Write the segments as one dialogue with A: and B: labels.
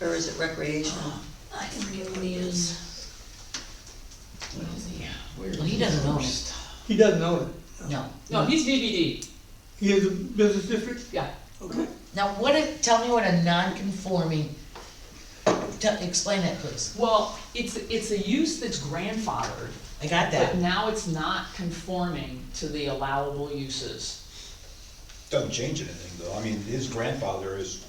A: or is it recreational?
B: I can forget what he is.
C: What is he? Where is
B: Well, he doesn't own it.
C: first?
D: He doesn't own it.
B: No.
C: No, he's BBD,
D: He is a business district?
C: yeah.
D: Okay.
B: Now, what if, tell me what a non-conforming, te- explain that please.
C: Well, it's, it's a use that's grandfathered,
B: I got that.
C: but now it's not conforming to the allowable uses.
E: Doesn't change anything, though, I mean, his grandfather is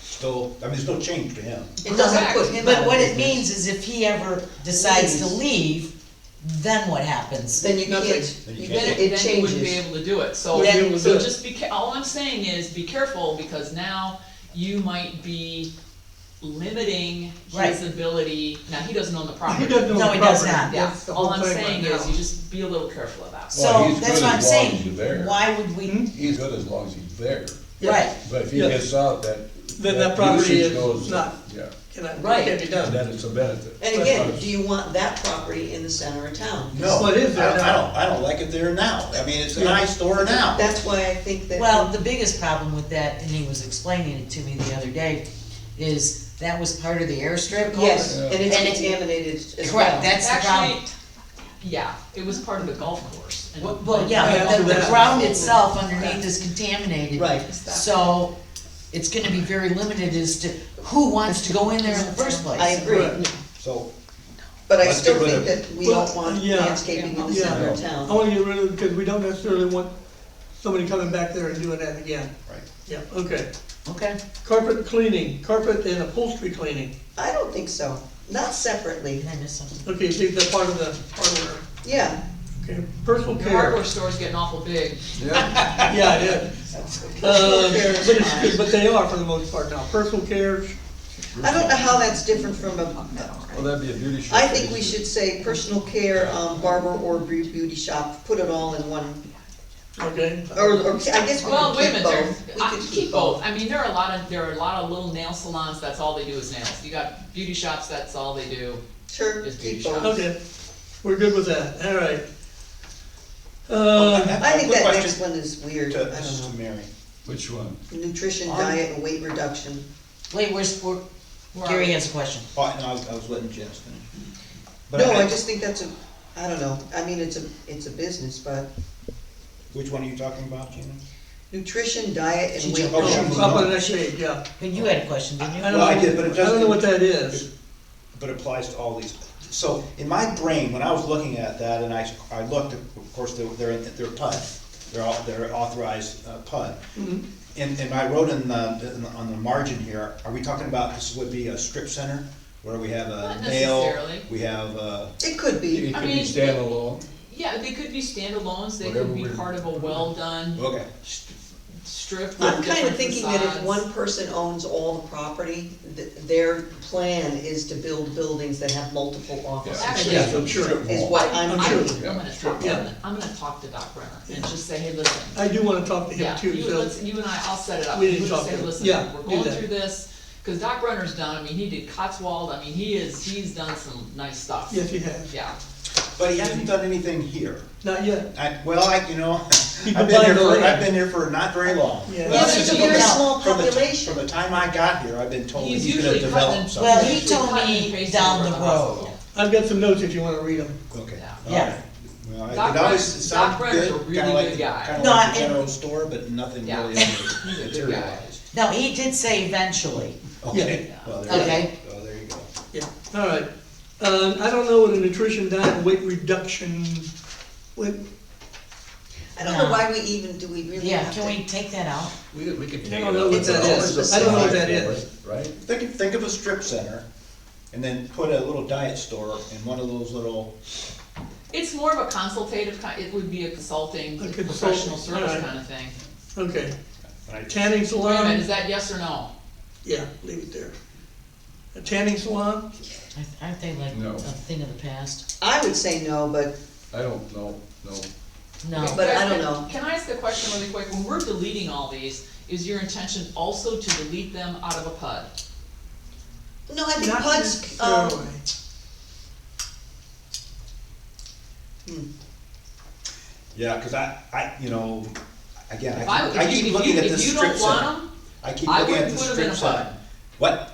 E: still, I mean, there's no change to him.
B: It doesn't
C: Correct.
B: put him, but what it means is if he ever decides to leave, then what happens?
A: Then you
D: Nothing.
A: can't,
E: Then you
A: then
E: can't.
A: it
C: Then you wouldn't be
A: changes.
C: able to do it, so,
D: Then- Yeah.
C: so just be, ca- all I'm saying is be careful, because now you might be limiting
B: Right.
C: his ability, now, he doesn't own the property.
D: He doesn't own the property.
B: No, he does not.
C: Yeah,
D: That's the
C: all
D: whole
C: I'm
D: thing
C: saying
D: right
C: is,
D: now.
C: you just be a little careful about it.
F: Well,
B: So,
F: he's
B: that's
F: good
B: what I'm
F: as long as
B: saying,
F: you're there.
B: why would we,
F: He's good as long as he's there,
B: right,
F: but if he
D: Yeah.
F: gets out, that.
D: Then that property
F: usage
D: is
F: goes-
D: not-
F: Yeah,
D: Cannot,
C: Right.
D: can't be
F: and
D: done.
F: then it's a benefit.
A: And again, do you want that property in the center of town?
E: No,
D: Well,
E: I
D: it is
E: don't,
D: there
E: I
D: now.
E: don't, I don't like it there now, I mean, it's an
D: Yeah.
E: eyesore now.
A: That's why I think that.
B: well, the biggest problem with that, and he was explaining it to me the other day, is that was part of the airstrip.
A: Yes,
B: culvert.
A: and it's
B: And it-
A: contaminated as well.
B: Correct, that's the problem.
C: Actually, yeah, it was part of the golf course. and-
B: Well, well, yeah, but the, the
D: Yeah.
B: ground itself underneath is contaminated.
A: Right.
B: So, it's gonna be very limited as to who wants to go in there in the first place.
A: I agree,
D: Right.
E: So,
A: but I
E: Let's
A: still
E: get rid
A: think
E: of-
A: that we
D: Well,
A: don't want
D: yeah,
A: landscaping in the
D: yeah.
A: center of
D: I
A: town.
D: wanna get rid of it because we don't necessarily want somebody coming back there and doing that again.
E: right,
D: Yeah, okay.
B: Okay,
D: Carpet cleaning, carpet and upholstery cleaning.
A: I don't think so, not separately,
B: did I miss something?
D: Okay, leave that part of the hardware.
A: yeah.
D: Okay, personal
C: The
D: care.
C: hardware store's getting awful big.
F: Yeah,
D: Yeah, it is.
A: Personal
D: Um,
A: care
D: But
A: is
D: it's
A: fine.
D: good, but they are for the most part now. Personal care,
A: I don't know how that's different from a,
F: well, that'd be a beauty shop.
A: I think we should say personal care, um, barber or beau- beauty shop, put it all in one,
D: okay?
A: or, or, I guess we
C: Well, wait a
A: could
C: minute,
A: keep
C: there,
A: both. We
C: I
A: could
C: keep both, I mean, there are a lot of, there are a lot of little nail salons, that's all they do is nails. You got beauty shops, that's all they do.
A: Sure,
C: Just beauty
A: keep
C: shop.
A: both.
D: Okay, we're good with that, all right. Uh,
A: I think that
E: Quick question.
A: next one is weird,
E: to,
A: I
E: this Um, is
A: don't
E: to Mary.
F: Which one?
A: know, nutrition,
E: Are-
A: diet, and weight reduction,
B: Wait, where's, where,
C: Where are
B: Gary
C: we?
B: has a question.
E: Oh, no, I was, I was letting Janice finish. But
A: no, I just think that's a, I don't know, I mean, it's a, it's a business, but
E: Which one are you talking about, Gina?
A: nutrition, diet,
B: She
A: and weight
D: oh,
B: jumped
A: reduction.
E: over.
D: up on the next page, yeah.
B: But you had a question, didn't you?
D: I don't
E: Well, I
D: know-
E: did, but it
D: I don't know
E: doesn't-
D: what that is.
E: but it applies to all these. So in my brain, when I was looking at that and I, I looked, of course, they're, they're, they're PUD. They're au- they're authorized uh, PUD. And, and I wrote in the, in the- on the margin here, are we talking about this would be a strip center? Where we have a
C: Not
E: nail,
C: necessarily.
E: we have uh, a,
A: It could
F: It
A: be,
C: I
F: could be
C: mean-
F: standalone,
C: Yeah, they could be standalones, they
F: Whatever
C: could be
F: we-
C: part of a well-done
E: okay,
C: st- strip with
A: I'm
C: different
A: kinda thinking that if
C: facades.
A: one person owns all the property, th- their plan is to build buildings that have multiple offices.
C: Actually,
D: Yeah, I'm sure.
A: Is
C: I,
A: what I'm
C: I,
A: sure.
C: I'm gonna talk, I'm
D: Yeah.
C: gonna, I'm gonna talk to Doc Brenner and just say, hey, listen,
D: I do wanna talk to him
C: Yeah,
D: too,
C: you,
D: so,
C: let's, you and I, I'll set it up.
D: We didn't
C: You just
D: talk
C: say,
D: to-
C: "Listen,
D: yeah,
C: We're
D: do
C: going
D: that.
C: through this, cause Doc Brenner's done, I mean, he did Cotswold, I mean, he is, he's done some nice stuff.
D: yes, he has.
C: Yeah,
E: but he hasn't done anything here.
D: Not yet,
E: I, well, I, you know,
D: He
E: I've
D: could
E: been here
D: buy
E: for,
D: land.
E: I've been here for not very long.
D: Yeah.
A: Yeah,
E: Well,
B: Yes,
A: there's a
B: you
A: very
B: do.
A: small
E: From the,
A: population.
E: from the time I got here, I've been told
C: He's
E: he's gonna
C: usually
E: develop
C: cutting-
E: something.
B: Well, he
C: Usually
B: told
C: cut and
B: me
C: paste
B: down
C: over
B: the
C: the
B: road.
C: hospital.
D: I've got some notes if you wanna read them.
E: Okay.
C: Yeah.
E: all
B: Yeah.
E: right. Well,
C: Doc
E: I- it always
C: Brenner's-
E: sounds
C: Doc Brenner's a
E: good,
C: really
E: kinda like
C: good
E: the-
C: guy.
E: Kinda
B: No,
E: like
B: I-
E: the general store, but nothing
C: Yeah.
E: really
C: He's a good guy.
E: materialized.
B: Now, he did say eventually,
E: Okay,
C: Yeah.
E: well, there you
B: Okay.
E: go, well, there you go.
D: Yeah, all right. Um, I don't know what a nutrition diet and weight reduction, weight,
A: I don't know why we even, do we really
B: yeah,
A: have to?
B: can we take that out?
F: we could, we could
D: I
F: take it
D: don't know what
F: out.
A: It's
D: that
A: always
D: is.
A: the
D: I don't know what
A: same.
D: that is.
F: Right?
E: Think, of- think of a strip center, and then put a little diet store in one of those little,
C: it's more of a consultative kind, it would be a consulting,
D: A consultant,
C: professional service
D: alright.
C: kind of thing.
D: Okay,
E: when I-
D: tanning
C: Wait a minute,
D: salon,
C: is that yes or no?
D: yeah, leave it there. A tanning salon,
B: I- Aren't they like
F: No.
B: a thing of the past?
A: I would say no, but
F: I don't know, no.
B: No,
A: But I don't know.
C: Can I ask a question really quick? When we're deleting all these, is your intention also to delete them out of a PUD?
A: No, I think
D: not
A: PUD's, um,
D: necessarily.
E: yeah, cause I, I, you know, again,
C: If
E: I
C: I,
E: keep, I
C: if
E: keep
C: you, if
E: looking
C: you,
E: at
C: if
E: this
C: you
E: strip
C: don't want
E: center.
C: them,
E: I keep
C: I
E: looking at
C: wouldn't
E: this
C: put 'em in
E: strip
C: a bun.
E: center. What?